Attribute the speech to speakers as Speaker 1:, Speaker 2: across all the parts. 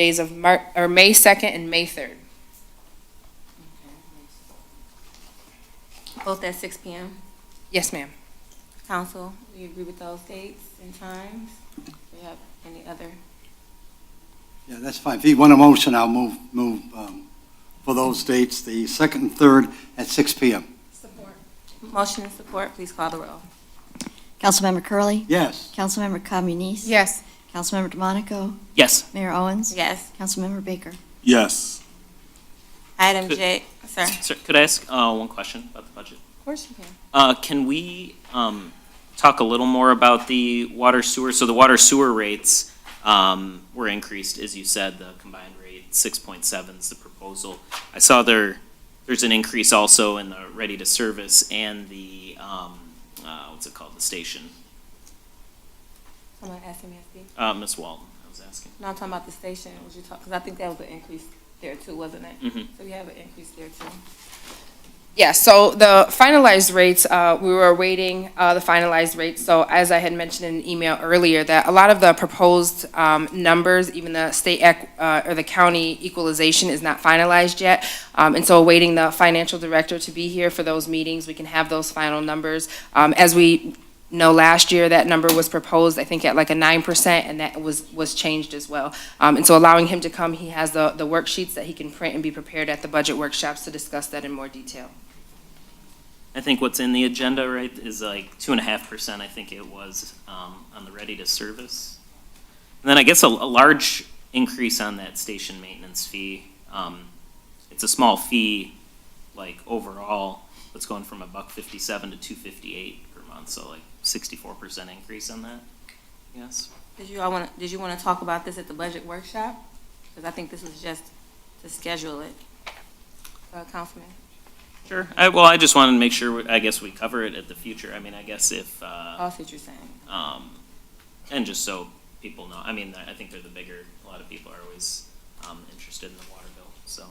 Speaker 1: days of Mar, or May 2nd and May 3rd.
Speaker 2: Both at six P M.
Speaker 1: Yes, ma'am.
Speaker 2: Council, we agree with those dates and times? Do we have any other?
Speaker 3: Yeah, that's fine. If you want a motion, I'll move, move um, for those dates, the second and third at six PM.
Speaker 2: Motion and support, please call the roll.
Speaker 4: Councilmember Curley,
Speaker 3: Yes,
Speaker 4: Councilmember Communis.
Speaker 1: Yes.
Speaker 4: Councilmember DeMonico,
Speaker 5: Yes.
Speaker 4: Mayor Owens.
Speaker 2: Yes.
Speaker 4: Councilmember Baker.
Speaker 6: Yes.
Speaker 2: Item J, sir.
Speaker 5: Sir, could I ask uh, one question about the budget?
Speaker 2: Of course you can.
Speaker 5: Uh, Can we um, talk a little more about the water sewer? So the water sewer rates um, were increased, as you said, the combined rate, 6.7 is the proposal. I saw there, there's an increase also in the ready-to-service and the, um, uh, what's it called, the station.
Speaker 2: Someone asked me, I see.
Speaker 5: Uh, Ms. Walton, I was asking.
Speaker 2: No, I'm talking about the station, was you talking, because I think that was an increase there too, wasn't it?
Speaker 5: Mhm.
Speaker 2: So we have an increase there too.
Speaker 1: Yeah, so the finalized rates, uh, we were awaiting uh, the finalized rates. So as I had mentioned in an email earlier, that a lot of the proposed um, numbers, even the state ec- uh, or the county equalization is not finalized yet. Um, And so awaiting the financial director to be here for those meetings, we can have those final numbers. Um, As we know, last year, that number was proposed, I think, at like a 9%, and that was, was changed as well. Um, And so allowing him to come, he has the the worksheets that he can print and be prepared at the budget workshops to discuss that in more detail.
Speaker 5: I think what's in the agenda, right, is like two and a half percent, I think it was, um, on the ready to service. And then I guess a, a large increase on that station maintenance fee. Um, it's a small fee, like overall, it's going from a buck fifty-seven to two fifty-eight per month, so like sixty-four percent increase on that, yes?
Speaker 2: Did you, I want, did you want to talk about this at the budget workshop? Because I think this was just to schedule it. Uh, Councilman?
Speaker 5: Sure. I, well, I just wanted to make sure, we- I guess we cover it at the future. I mean, I guess if, uh,
Speaker 2: I'll see what you're saying.
Speaker 5: Um, and just so people know, I mean, I think they're the bigger, a lot of people are always, um, interested in the water bill, so.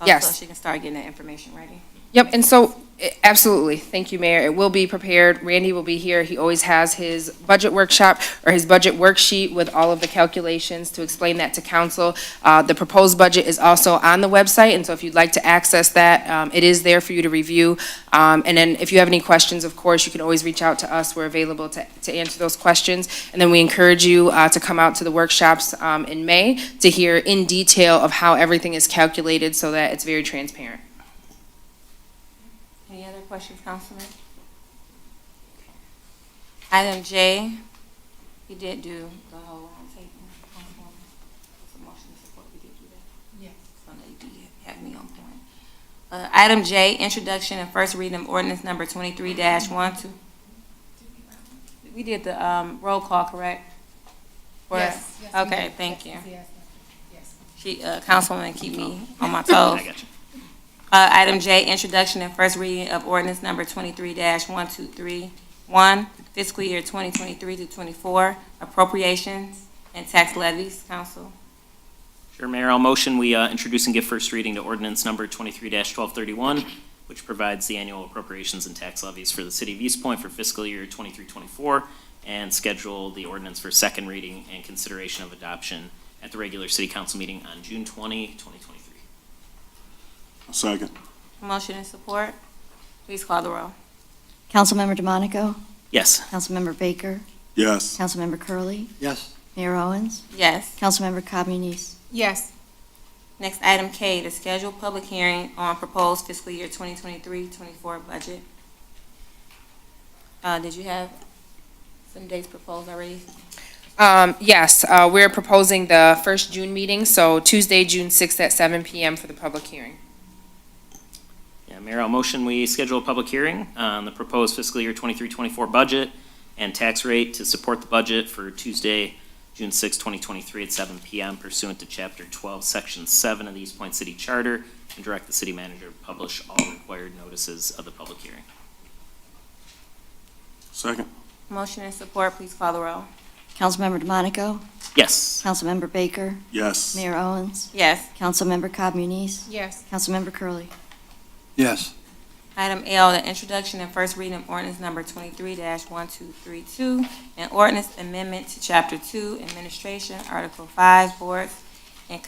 Speaker 2: Oh, So
Speaker 1: Yes.
Speaker 2: she can start getting that information ready.
Speaker 1: Yep, and so, eh, absolutely, thank you, Mayor, it will be prepared, Randy will be here, he always has his budget workshop, or his budget worksheet with all of the calculations to explain that to council. Uh, the proposed budget is also on the website, and so if you'd like to access that, um, it is there for you to review. Um, and then if you have any questions, of course, you can always reach out to us, we're available to, to answer those questions. And then we encourage you, uh, to come out to the workshops, um, in May to hear in detail of how everything is calculated so that it's very transparent.
Speaker 2: Any other questions, Councilman? Item J, you did do the whole round table. Councilwoman. It's a motion to support, we did do that. Yes. So now you did have me on point. Uh, item J, introduction and first reading of ordinance number twenty-three dash one two. We did the, um, roll call, correct? For-
Speaker 1: Yes.
Speaker 2: Okay, thank you. She, uh, Councilwoman, keep me on my toes.
Speaker 5: I got you.
Speaker 2: Uh, item J, introduction and first reading of ordinance number twenty-three one two three one, fiscal year twenty twenty-three to twenty-four, appropriations and tax levies, council.
Speaker 5: Sure, Mayor, I'll motion we, uh, introduce and give first reading to ordinance number twenty-three twelve thirty-one, which provides the annual appropriations and tax levies for the city of East Point for fiscal year twenty-three, twenty-four, and schedule the ordinance for second reading and consideration of adoption at the regular city council meeting on June 20, 2023.
Speaker 6: Second.
Speaker 2: Motion and support, please call the roll.
Speaker 4: Councilmember DeMonico,
Speaker 5: Yes.
Speaker 4: Councilmember Baker,
Speaker 6: Yes.
Speaker 4: Councilmember Curley,
Speaker 3: yes,
Speaker 4: Mayor Owens,
Speaker 2: Yes.
Speaker 4: Councilmember Communis.
Speaker 1: Yes.
Speaker 2: Next, item K, to schedule public hearing on proposed fiscal year 2023-24 budget. Uh, did you have some dates proposed already?
Speaker 1: Um, yes, uh, we're proposing the first June meeting, so Tuesday, June sixth at seven PM for the public hearing.
Speaker 5: Yeah, Mayor, I'll motion we schedule a public hearing on the proposed fiscal year 23-24 budget and tax rate to support the budget for Tuesday, June 6, 2023 at 7 PM pursuant to Chapter 12, Section 7 of the East Point City Charter, and direct the city manager to publish all required notices of the public hearing.
Speaker 6: Second.
Speaker 2: Motion and support, please call the roll.
Speaker 4: Councilmember DeMonico,
Speaker 5: Yes.
Speaker 4: Councilmember Baker,
Speaker 6: Yes.
Speaker 4: Mayor Owens,
Speaker 2: Yes.
Speaker 4: Councilmember Communis,
Speaker 1: Yes.
Speaker 4: Councilmember Curley.
Speaker 3: yes,
Speaker 2: Item L, the introduction and first reading of ordinance number twenty-three one-two-three-two, an ordinance amendment to chapter two, administration, article five, boards